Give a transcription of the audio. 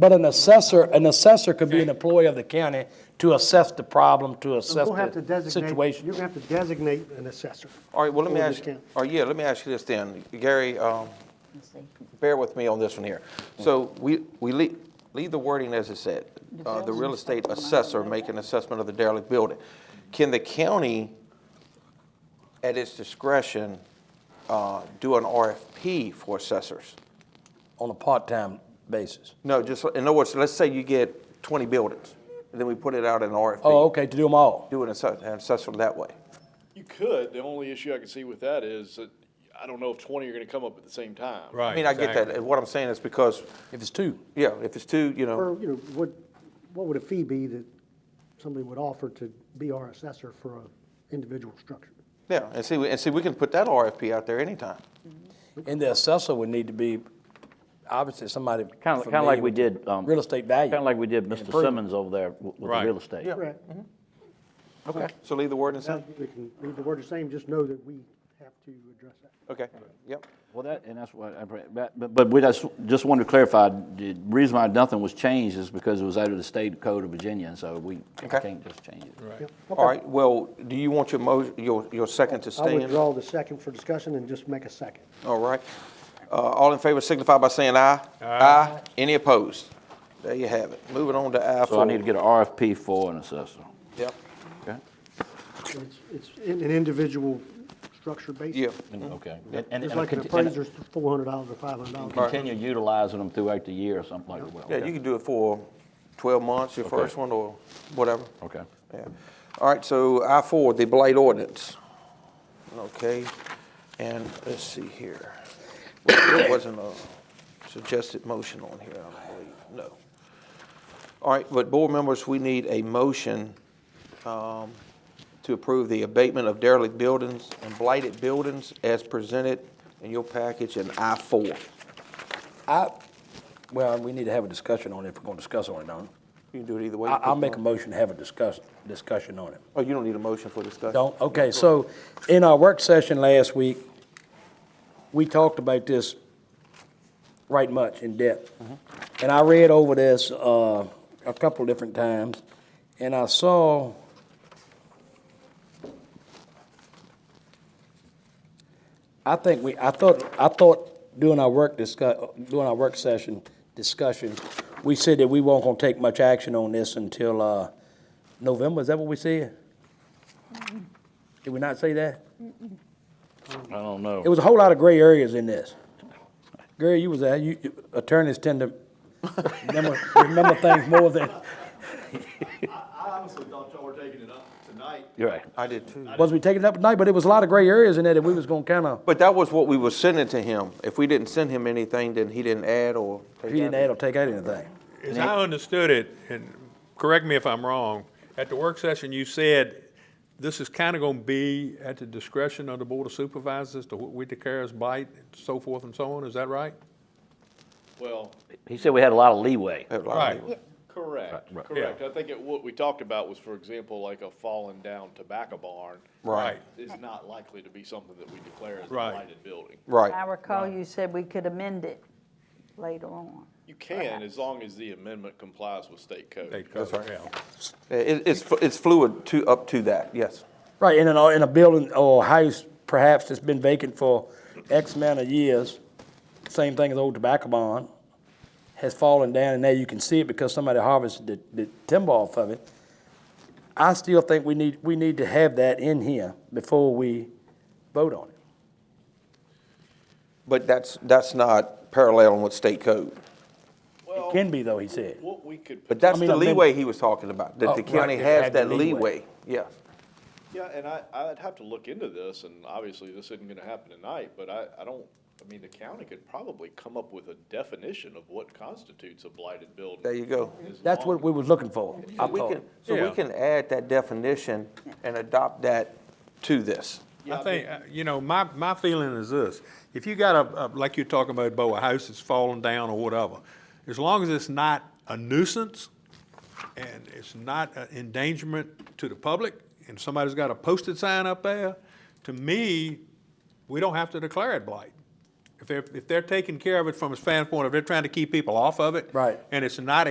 But an assessor, an assessor could be an employee of the county to assess the problem, to You're assess gonna have to the designate, situation. you're gonna have to designate an assessor. All right, well, let me Or ask, discount. or yeah, let me ask you this then. Gary, um, see. bear with me on this one here. Mm. So we, we leave, leave the wording as it said. Uh, The real estate assessor make an assessment of the derelict building. Can the county, at its discretion, uh, do an RFP for assessors? On a part-time basis. No, just, in other words, let's say you get 20 buildings, and then we put it out in RFP. Oh, okay, to do them all. Do an assess- an assessment that way. You could. The only issue I can see with that is that I don't know if twenty are gonna come up at the same time. Right. I mean, I get exactly. that. What I'm saying is because, If it's two, yeah, if it's two, you know. Or, you know, what, what would a fee be that somebody would offer to be our assessor for an individual structure? Yeah, and see, and see, we can put that RFP out there anytime. and the assessor would need to be, obviously, somebody. Kind of, kind of like we familiar did. with Real estate value. Kind of like we did Mr. improvement. Simmons over there w- with the Right. real estate. Right. Mm-hmm. Okay. So leave the word in Now, same? We can leave the word the same, just know that we have to address that. Okay, yep. Well, that, and that's what, I br- but, but- but we just, just wanted to clarify, the reason why nothing was changed is because it was out of the state code of Virginia, and so we Okay. can't just change it. Right. All right, well, do you want your mo, your, your second to I stand? withdraw the second for discussion and just make a second. All right. Uh, all in favor signify by saying aye. Aye. Any opposed? There you have it. Moving on to I four. So I need to get an RFP for an assessor. Yep, Okay. And It's, it's in an individual structure basis. yeah, Okay. And, and- It's and like an conti- and- appraiser's four hundred dollars or five hundred dollars. Continue utilizing them throughout the year or something like that. Well, yeah, okay. you can do it for twelve months, your first one or whatever. Okay. Yeah. All right, so I four, the blight ordinance. Okay, and let's see here. Well, There wasn't a suggested motion on here, I don't believe, no. All right, but board members, we need a motion um, to approve the abatement of derelict buildings and blighted buildings as presented in your package in I four. I, well, we need to have a discussion on it if we're going to discuss on it, don't we? You can do it either way. I, I'll make a motion to have a discuss, discussion on it. Oh, you don't need a motion for discussion? Don't, okay, so in our work session last week, we talked about this right much in depth. And I read over this, uh, a couple different times, and I saw I think we, I thought, I thought during our work discuss, during our work session discussion, we said that we weren't gonna take much action on this until, uh, November, is that what we said? Did we not say that? I don't know. It was a whole lot of gray areas in this. Gary, you was there, you, you- attorneys tend to remember, remember things more than, I honestly thought y'all were taking it up tonight. You're right. I did too. was we taking it up tonight, but it was a lot of gray areas in there that we was gonna kinda, But that was what we were sending to him. If we didn't send him anything, then he didn't add or. he didn't add or take out anything. As I understood it, and correct me if I'm wrong, at the work session, you said this is kind of going to be at the discretion of the Board of Supervisors to what we declare as blight, so forth and so on, is that right? Well, He said we had a lot of leeway. Right. correct, Right, right. correct. I think it, what we talked about was, for example, like a fallen down tobacco barn. Right, Is not likely to be something that we declare as a Right. blighted building. I right. recall you said we could amend it later on. You can, as long as the amendment complies with state They code. cover, yeah. It, it's, fl- it's fluid to, up to that, yes. Right, in a, in a building or house perhaps that's been vacant for X amount of years, same thing as old tobacco barn, has fallen down and now you can see it because somebody harvested the, the timber off of it. I still think we need, we need to have that in here before we vote on it. But that's, that's not paralleling with state code. Well, It can be though, he said. what we could. But that's I mean, the I've been- leeway he was talking about, Oh, that the right, county it has had the that leeway. leeway, yes. Yeah, and I, I'd have to look into this, and obviously, this isn't gonna happen tonight, but I, I don't, I mean, the county could probably come up with a definition of what constitutes a blighted building. There you go. As That's long- what we was looking for, I We thought. can, so we Yeah. can add that definition and adopt that to this. I think, uh, you know, my, my feeling is this, if you got a, a- like you're talking about, Bo, a house that's falling down or whatever, as long as it's not a nuisance and it's not an endangerment to the public, and somebody's got a posted sign up there, to me, we don't have to declare it blight. If they're, if they're taking care of it from a standpoint, if they're trying to keep people off of it. Right. And it's not